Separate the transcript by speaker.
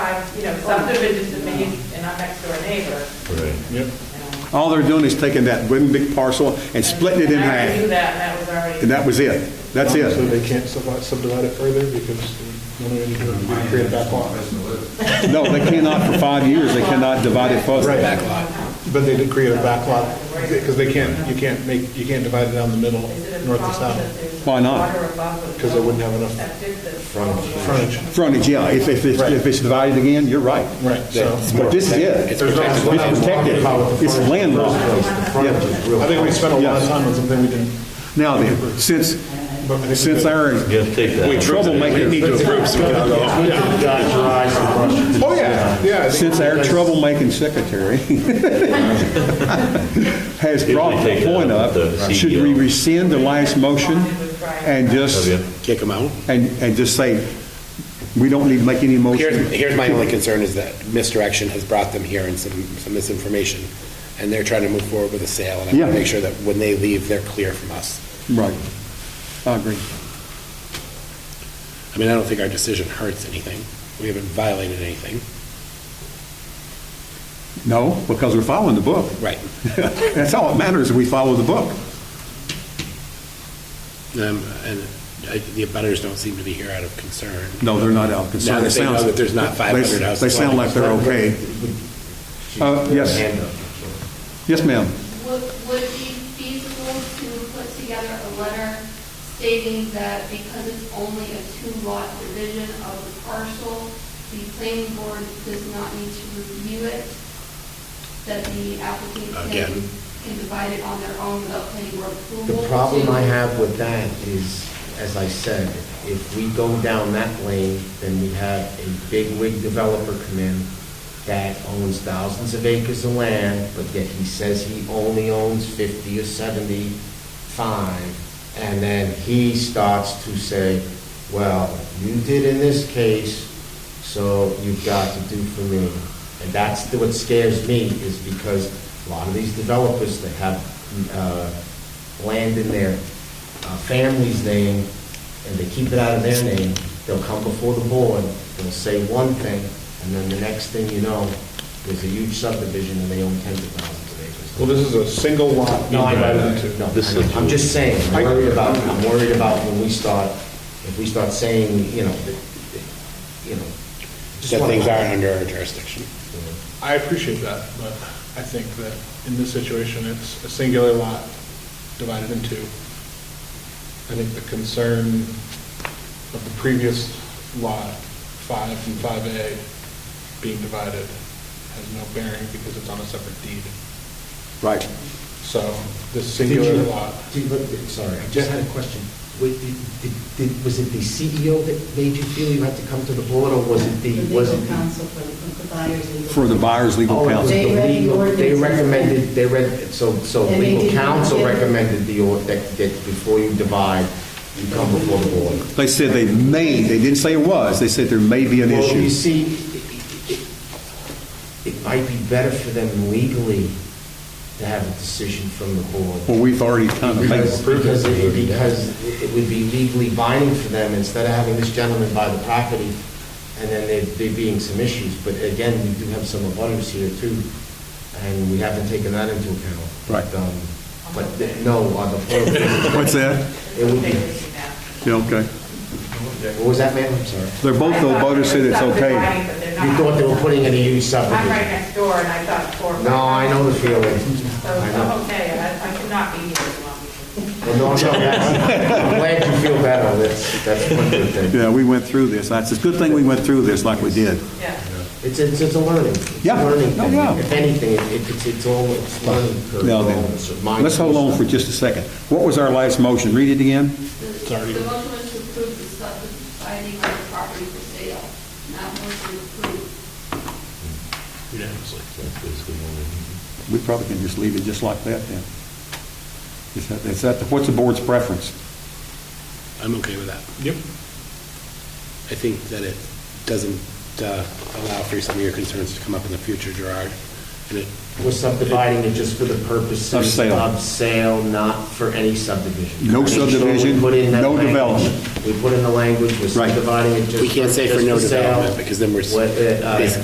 Speaker 1: five, you know, subdivisions in me and I'm next door neighbor.
Speaker 2: Yep.
Speaker 3: All they're doing is taking that one big parcel and splitting it in
Speaker 1: And I knew
Speaker 3: half,
Speaker 1: that, and that was already.
Speaker 3: and that was it. That's
Speaker 2: So
Speaker 3: it.
Speaker 2: they can't subdi- subdivide it further because no one would create a back lot.
Speaker 3: No, they cannot, for five years, they cannot divide it further.
Speaker 2: Back lot. But they did create a back lot because they can't, you can't make, you can't divide it down the middle,
Speaker 1: Is it a
Speaker 2: north and
Speaker 1: problem that
Speaker 2: south.
Speaker 1: there's
Speaker 3: Why not?
Speaker 1: water above with
Speaker 2: Because they wouldn't have enough
Speaker 1: septic that's-
Speaker 2: Frontage,
Speaker 3: Frontage, yeah, if, if, it's- if it's divided again, you're right.
Speaker 2: right, so.
Speaker 3: But this is it. It's
Speaker 2: There's no-
Speaker 3: protected, it's landlocked. Yeah.
Speaker 2: I think we spent a lot of time on something we didn't.
Speaker 3: Now then, since,
Speaker 2: but I think we
Speaker 3: since
Speaker 2: did.
Speaker 3: our troublemaking,
Speaker 2: Oh, yeah, yeah. I think-
Speaker 3: since our troublemaking secretary has brought the E point up, should we rescind the last motion and just
Speaker 4: Kick them out?
Speaker 3: and, and just say, we don't need to make any
Speaker 4: Here's,
Speaker 3: motion.
Speaker 4: here's my only concern is that misdirection has brought them here and some, some misinformation, and they're trying to move forward with a sale, and I want
Speaker 3: Yeah.
Speaker 4: to make sure that when they leave, they're clear from us.
Speaker 3: Right. I agree.
Speaker 4: I mean, I don't think our decision hurts anything. We haven't violated anything.
Speaker 3: No, because we're following the book.
Speaker 4: Right.
Speaker 3: That's all that matters, is we follow the book.
Speaker 4: Um, and I- the abutters don't seem to be here out of concern.
Speaker 3: No, they're not out of
Speaker 4: Now
Speaker 3: concern.
Speaker 4: that
Speaker 3: It
Speaker 4: they know
Speaker 3: sounds-
Speaker 4: that there's not 500
Speaker 3: they-
Speaker 4: houses
Speaker 3: They sound like they're
Speaker 4: left.
Speaker 3: okay. Uh, yes, yes, ma'am.
Speaker 5: Would, would it be feasible to put together a letter stating that because it's only a two-lot division of the parcel, the planning board does not need to review it, that the applicant can,
Speaker 4: Again.
Speaker 5: can divide it on their own without planning board approval?
Speaker 6: The problem
Speaker 5: to-
Speaker 6: I have with that is, as I said, if we go down that lane, then we have a big wig developer come in that owns thousands of acres of land, but yet he says he only owns 50 or 75, and then he starts to say, well, you did in this case, so you've got to do for me. And that's the- what scares me, is because a lot of these developers, they have uh, land in their uh, family's name, and they keep it out of their name, they'll come before the board, they'll say one thing, and then the next thing you know, there's a huge subdivision and they own tens of thousands of acres.
Speaker 2: Well, this is a single lot.
Speaker 6: No, I
Speaker 2: divided
Speaker 6: know,
Speaker 2: into-
Speaker 6: no, I know. I'm just saying, I'm worried about, I'm worried about when we start, if we start saying, you know, that- that, you know. just
Speaker 4: That
Speaker 6: wanna-
Speaker 4: things aren't under our jurisdiction.
Speaker 2: I appreciate that, but I think that in this situation, it's a singular lot divided in two. I think the concern of the previous lot, five and five A, being divided has no bearing because it's on a separate deed.
Speaker 3: Right.
Speaker 2: So this
Speaker 6: Did
Speaker 2: singular
Speaker 6: you-
Speaker 2: lot,
Speaker 6: did- but- Sorry, I just had a question. Wait, did- did- did- Was it the CEO that made you feel you had to come to the board, or was it the, was it?
Speaker 7: legal
Speaker 6: the-
Speaker 7: counsel for the- for the buyers. legal
Speaker 3: For the buyer's legal
Speaker 6: Oh, it was
Speaker 3: counsel.
Speaker 7: They
Speaker 6: the
Speaker 7: read the
Speaker 6: legal- They
Speaker 7: ordinances.
Speaker 6: recommended, they read, so, so
Speaker 7: And they
Speaker 6: legal
Speaker 7: didn't
Speaker 6: counsel
Speaker 7: get it.
Speaker 6: recommended the, or- that, that before you divide, you come before the board.
Speaker 3: They said they may, they didn't say it was, they said there may be an
Speaker 6: Well, you
Speaker 3: issue.
Speaker 6: see, it- it- it might be better for them legally to have a decision from the board.
Speaker 3: Well, we've already kind of made
Speaker 6: Because, because it, because it would be legally binding for them, instead of having this gentleman buy the property, and then there, there being some issues, but again, we do have some abutters here too, and we haven't taken that into account.
Speaker 3: Right.
Speaker 6: But, um, But, the- no, on the floor,
Speaker 3: What's that?
Speaker 6: it would be,
Speaker 3: Yeah, okay.
Speaker 6: what was that, ma'am, I'm sorry?
Speaker 3: They're both, the voters said it's okay.
Speaker 6: You thought they were putting in a huge
Speaker 1: I'm right
Speaker 6: subdivision?
Speaker 1: next door, and I thought four.
Speaker 6: No, I know the feeling.
Speaker 1: So,
Speaker 6: I know.
Speaker 1: so, okay, I, I could not be here as long.
Speaker 6: Well, no, no, that's, I'm glad you feel better, that's, that's one good thing.
Speaker 3: Yeah, we went through this, that's, it's a good thing we went through this like we did.
Speaker 1: Yeah.
Speaker 6: It's, it's, it's a learning. It's a
Speaker 3: Yeah.
Speaker 6: Learning
Speaker 3: Oh,
Speaker 6: thing.
Speaker 3: yeah.
Speaker 6: If anything, it- it- it's, it's all, it's learning. curve.
Speaker 3: Now then,
Speaker 6: It's a mindful
Speaker 3: let's hold on for
Speaker 6: stuff.
Speaker 3: just a second. What was our last motion? Read it again.
Speaker 2: Sorry.
Speaker 5: The the motion was to approve the subdividing of the property for sale, not motion to approve
Speaker 3: We probably can just leave it just like that then. Is that, is that, what's the board's preference?
Speaker 4: I'm okay with that.
Speaker 2: yep,
Speaker 4: I think that it doesn't uh, allow for some of your concerns to come up in the future, Gerard. And it,
Speaker 6: We're subdividing it just for the purposes
Speaker 3: Of sale.
Speaker 6: Of sale, not for any subdivision.
Speaker 3: No
Speaker 6: Make sure we
Speaker 3: subdivision,
Speaker 6: put in that
Speaker 3: no
Speaker 6: language.
Speaker 3: development.
Speaker 6: We put in the language, we're
Speaker 3: Right.
Speaker 6: subdividing it just.
Speaker 4: we can't say for
Speaker 6: just
Speaker 4: no
Speaker 6: sale.
Speaker 4: development, because then we're s-
Speaker 6: What, uh, uh,
Speaker 4: basically